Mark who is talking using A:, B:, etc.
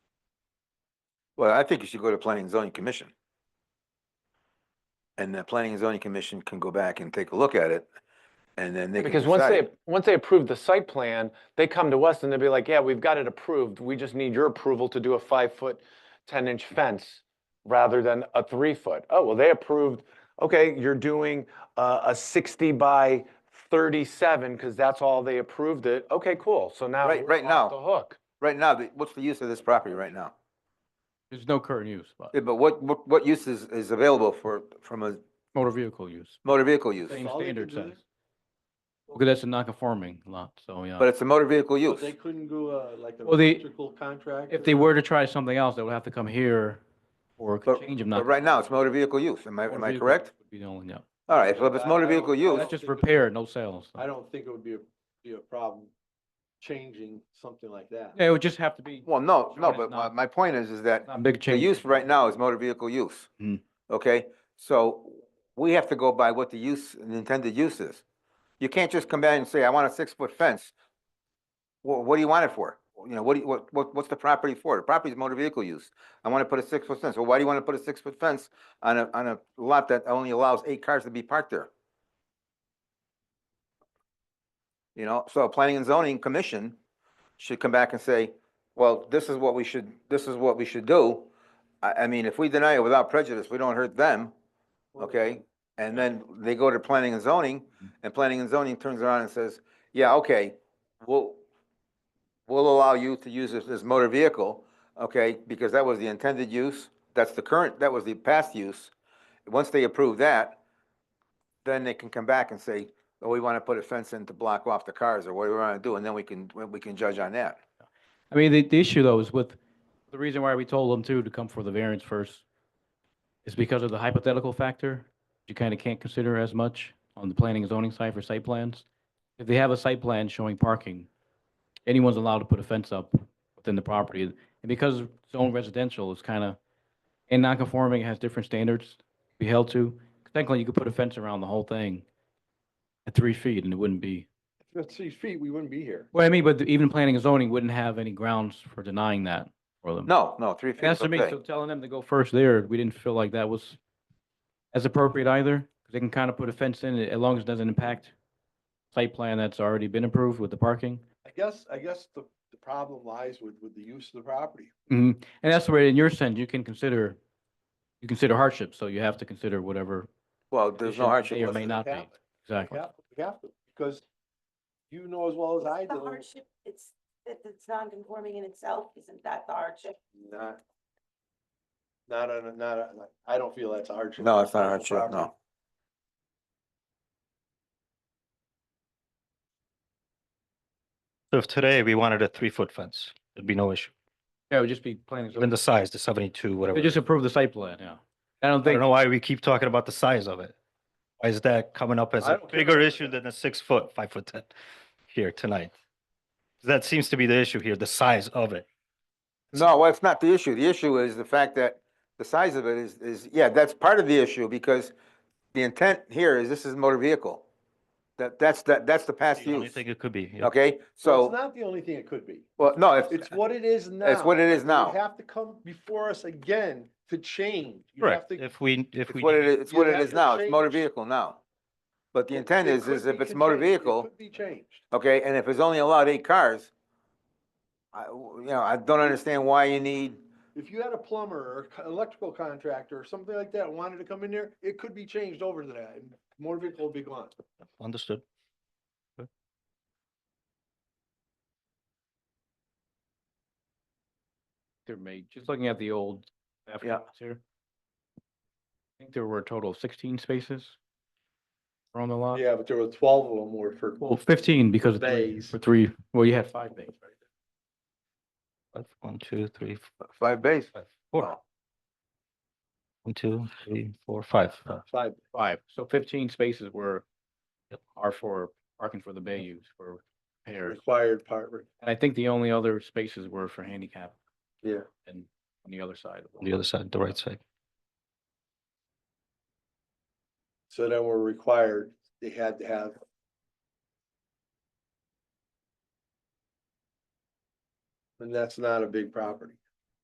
A: Well, I think you should go to planning and zoning commission. And the planning and zoning commission can go back and take a look at it, and then they can
B: Because once they,
A: decide.
B: once they approve the site plan, they come to us and they'll be like, yeah, we've got it approved. We just need your approval to do a five-foot, ten-inch fence rather than a three-foot. Oh, well, they approved, okay, you're doing uh, a sixty by thirty-seven because that's all they approved it. Okay, cool. So now
A: Right-
B: we're
A: right
B: off
A: now.
B: The hook.
A: Right now, the- what's the use of this property right now?
C: There's no current use, but
A: Yeah, But what, what, what use is, is available for, from a
C: motor vehicle use,
A: motor vehicle use?
C: same
D: all they
C: standard
D: can do
C: says.
D: is-
C: Okay, that's a non-conforming lot, so yeah.
A: But it's a motor vehicle
D: So
A: use.
D: They couldn't do a, like an
C: Well, they-
D: electrical contract?
C: If they were to try something else, they would have to come here for a
A: But-
C: change of
A: But
C: not.
A: right now, it's motor vehicle use. Am I,
C: motor
A: am I
C: vehicle
A: correct?
C: would Be the only, yeah.
A: All right, so if it's
D: I-
A: motor
D: I don't-
A: vehicle
D: I
A: use,
D: don't
C: That's just
D: think it-
C: repair, no sales.
D: I don't think it would be a, be a problem changing something like that.
C: Yeah, it would just have to be
A: well, no,
C: Sure,
A: no,
C: it's
A: but my,
C: not-
A: my point is, is that
C: not a big
A: the
C: change.
A: use right now is motor vehicle use.
C: Hmm.
A: Okay, so we have to go by what the use, the intended use is. You can't just come back and say, I want a six-foot fence. Well, what do you want it for? You know, what do you, what, what, what's the property for? The property is motor vehicle use. I want to put a six-foot fence. Well, why do you want to put a six-foot fence on a, on a lot that only allows eight cars to be parked there? You know, so a planning and zoning commission should come back and say, well, this is what we should, this is what we should do. I, I mean, if we deny it without prejudice, we don't hurt them,
D: Well,
A: okay? And then they go to planning and zoning, and planning and zoning turns around and says, yeah, okay, we'll, we'll allow you to use this, this motor vehicle, okay, because that was the intended use, that's the current, that was the past use. Once they approve that, then they can come back and say, oh, we want to put a fence in to block off the cars, or what do we want to do, and then we can, we can judge on that.
C: I mean, the, the issue though is with, the reason why we told them too to come for the variance first is because of the hypothetical factor, you kind of can't consider as much on the planning and zoning side for site plans. If they have a site plan showing parking, anyone's allowed to put a fence up within the property. And because it's own residential, it's kind of, and non-conforming it has different standards to be held to. Technically, you could put a fence around the whole thing at three feet and it wouldn't be
D: If it's six feet, we wouldn't be here.
C: well, I mean, but the- even planning and zoning wouldn't have any grounds for denying that for them.
A: No, no, three feet
C: And That's
A: is
C: to me,
A: okay.
C: so telling them to go first there, we didn't feel like that was as appropriate either. 'cause They can kind of put a fence in, as long as it doesn't impact site plan that's already been approved with the parking.
D: I guess, I guess the, the problem lies with, with the use of the property.
C: hmm And that's where in your sense, you can consider, you consider hardship, so you have to consider whatever,
A: Well, there's no
C: conditions
A: hardship.
C: may or
A: listed.
C: may not be.
D: Catholic.
C: Exactly.
D: Yeah, we have to, because you know as well as I
E: Isn't The
D: do,
E: hardship, it's, that it's non-conforming in itself, isn't that the hardship?
D: not, not on, a- not, on a- I don't feel that's a hardship.
A: No, it's not a
D: on the
A: hardship,
D: property.
A: no.
F: So if today we wanted a three-foot fence, it'd be no issue.
C: Yeah, it would just be planning.
F: Even the size, the seventy-two, whatever.
C: They
F: it is.
C: just approve the site plan, yeah. I don't
F: I don't
C: think,
F: know why we keep talking about the size of it. Why is that coming up as
D: I
F: a
D: don't care
F: bigger
D: about
F: issue than a six-foot, five-foot-ten here tonight? That seems to be the issue here, the size of it.
A: No, well, it's not the issue. The issue is the fact that the size of it is, is, yeah, that's part of the issue because the intent here is this is motor vehicle. That, that's, that, that's the past
F: The only
A: use,
F: thing it could be. yeah.
A: okay?
D: Well, It's
A: So,
D: not the only thing it could be.
A: well, no, it's,
D: It's what it is now.
A: it's what it is
D: You
A: now.
D: have to come before us again to change. You have
F: Correct.
D: to-
F: If we, if
A: It's
F: we.
A: what it is, it's
D: you
A: what it
D: have
A: is
D: to
A: now. It's motor
D: change-
A: vehicle now. But the
D: it-
A: intent
D: it
A: is,
D: could
A: is
D: be
A: if it's motor
D: contain- it
A: vehicle,
D: could Be changed.
A: okay, and if it's only allowed eight cars, I, you know, I don't understand why you need,
D: If you had a plumber or co- electrical contractor or something like that wanted to come in there, it could be changed over to that. and Motor vehicle would be gone.
F: Understood.
C: there may, just looking at the old afternoons here. I think there were a total of sixteen spaces on the
F: Uh-huh.
C: lot.
D: Yeah, but there were twelve of them were for.
C: Well, fifteen because of three,
D: Bays.
C: for three, well, you had five bays, right?
F: That's One, two, three, f-
A: five bays.
F: five, four. One, two, three, four, five. Uh,
D: Five.
C: Five, so fifteen spaces were, are for parking for the bay use for repairs.
D: Required part. re-
C: And I think the only other spaces were for handicap
D: Yeah.
C: and on the other side. of
F: On the other side, the right side.
D: So then we're required, they had to have. And that's not a big property.